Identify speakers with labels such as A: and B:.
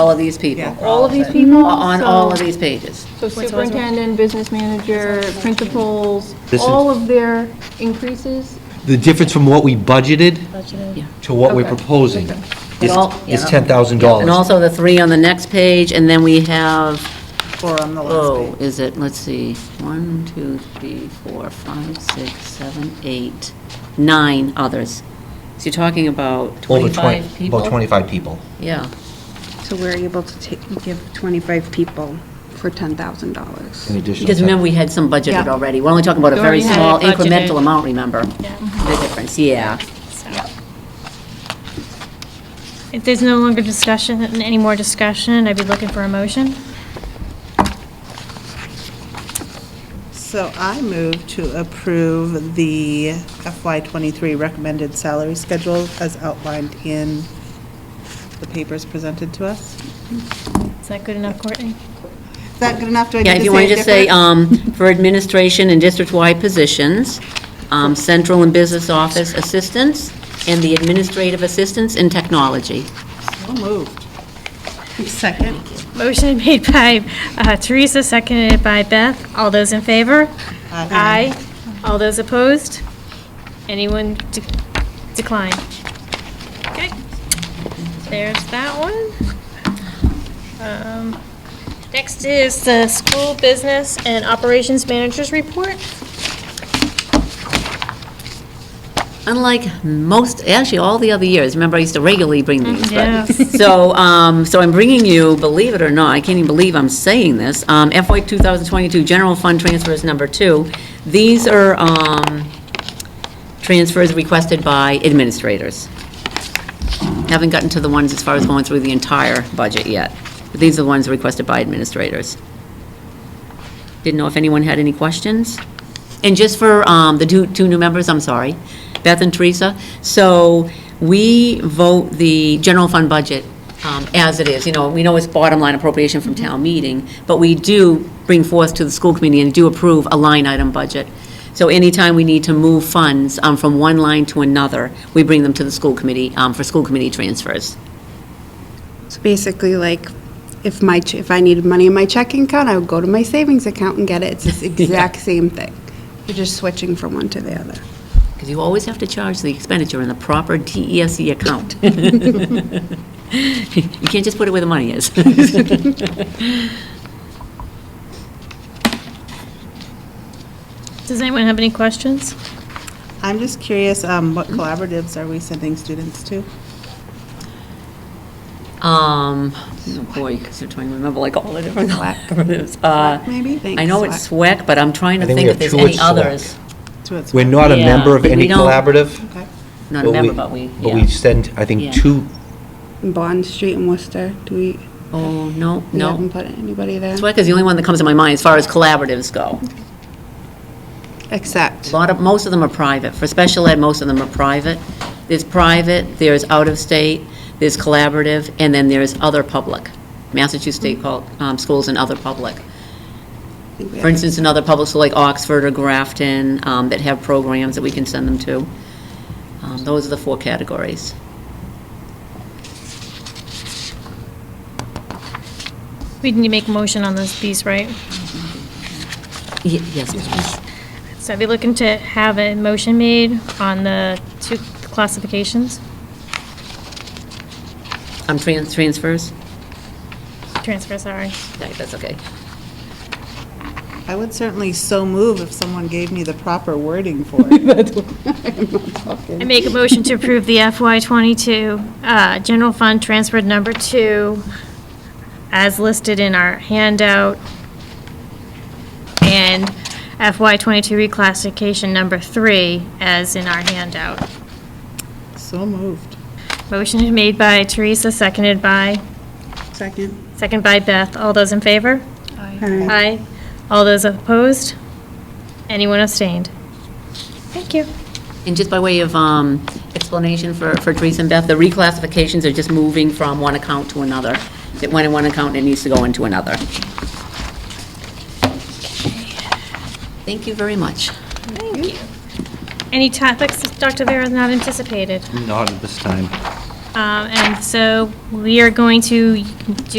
A: all of these people,
B: All of these people?
A: on all of
B: Mm-hmm. So-
A: these pages.
B: So superintendent, business manager, principals,
C: This is-
B: all of their increases?
C: The difference from what we budgeted to what we're
B: Okay.
C: proposing
A: It
C: is
A: all-
C: is
A: yeah.
C: $10,000.
A: And also the three on the next page, and then we have,
D: Four on the
A: oh,
D: last page.
A: is it, let's see, one, two, three, four, five, six, seven, eight, nine others. So you're talking about
C: Over 20
A: 25 people?
C: About 25 people.
A: Yeah.
E: So we're able to take, give 25 people for $10,000.
C: in addition.
A: Because remember, we had some budgeted
B: Yeah.
A: already. We're only talking about a
F: We
A: very
F: already had
A: small
F: it budgeted.
A: incremental amount, remember? The difference, yeah.
F: If there's no longer discussion, any more discussion, I'd be looking for a motion.
D: So I move to approve the FY '23 recommended salary schedule as outlined in the papers presented to us.
F: Is that good enough, Courtney?
D: Is that good enough? Do I need
A: Yeah,
D: to
A: if you want
D: it
A: to just say,
D: different?
A: um, for administration and district-wide positions, um, central and business office assistants, and the administrative assistants in technology. um,
D: So moved. Second.
F: Motion made by uh, Teresa, seconded by Beth. All those in favor?
D: Aye.
F: Aye. All those opposed? Anyone de- decline? Okay, there's that one. Um, Next is the school business and operations managers report.
A: Unlike most, actually, all the other years, remember, I used to regularly bring these, but-
F: Yes.
A: So, um, so I'm bringing you, believe it or not, I can't even believe I'm saying this, um, FY 2022 general fund transfer is number two. These are, um, transfers requested by administrators. Haven't gotten to the ones as far as going through the entire budget yet, but these are the ones requested by administrators. Didn't know if anyone had any questions? And just for um, the two, two new members, I'm sorry, Beth and Teresa, so we vote the general fund budget um, as it is, you know, we know it's bottom line appropriation from town meeting, but we do bring forth to the school committee and do approve a line item budget. So anytime we need to move funds um, from one line to another, we bring them to the school committee um, for school committee transfers.
E: So basically, like, if my, ch- if I needed money in my checking account, I would go to my savings account and get it. It's the exact same thing. You're just switching from one to the other.
A: Because you always have to charge the expenditure in the proper DESE E account. You can't just put it where the money is.
F: Does anyone have any questions?
D: I'm just curious, um, what
A: Mm-hmm.
D: collaboratives are we sending students to?
A: Um, oh boy, 'cause you're trying to remember like all the different collaboratives. Uh,
D: Maybe?
A: I know it's SWEC, but I'm trying to
C: I think
A: think if
C: we have
A: there's
C: two
A: any
C: at
A: others.
D: To its-
C: We're not a
A: Yeah,
C: member of
A: we
C: any
A: don't-
C: collaborative.
D: Okay.
A: Not a member, but we,
C: But we
A: yeah.
C: send, I
A: Yeah.
C: think, two,
E: Bond Street in Worcester, do we,
A: Oh, no,
E: we
A: no.
E: haven't put anybody there?
A: SWEC is the only one that comes to my mind as far as collaboratives go. A
E: Except,
A: lot of, most of them are private. For special ed, most of them are private. There's private, there's out-of-state, there's collaborative, and then there's other public. Massachusetts State called, um, schools and other public.
E: I think
A: For
E: we have-
A: instance, another public, so like Oxford or Grafton, um, that have programs that we can send them to. Um, Those are the four categories.
F: We need to make a motion on this piece, right?
A: Ye- Yes, please.
F: So I'd be looking to have a motion made on the two classifications,
A: Um, tran- transfers?
F: transfer, sorry.
A: No, That's okay.
D: I would certainly so move if someone gave me the proper wording for it.
F: I make a motion to approve the FY '22 uh, general fund transfer number two as listed in our handout, and FY '22 reclassification number three as in our handout.
D: So moved.
F: Motion made by Teresa, seconded by,
E: Second.
F: second by Beth. All those in favor? Aye. All those opposed? Anyone abstained? Thank you.
A: And just by way of um, explanation for for Teresa and Beth, the reclassifications are just moving from one account to another. It went in one account and it needs to go into another. Thank you very much.
F: Thank you. Any topics, Dr. Vera, not anticipated?
C: not at this time.
F: Um, Um, And so we are going to do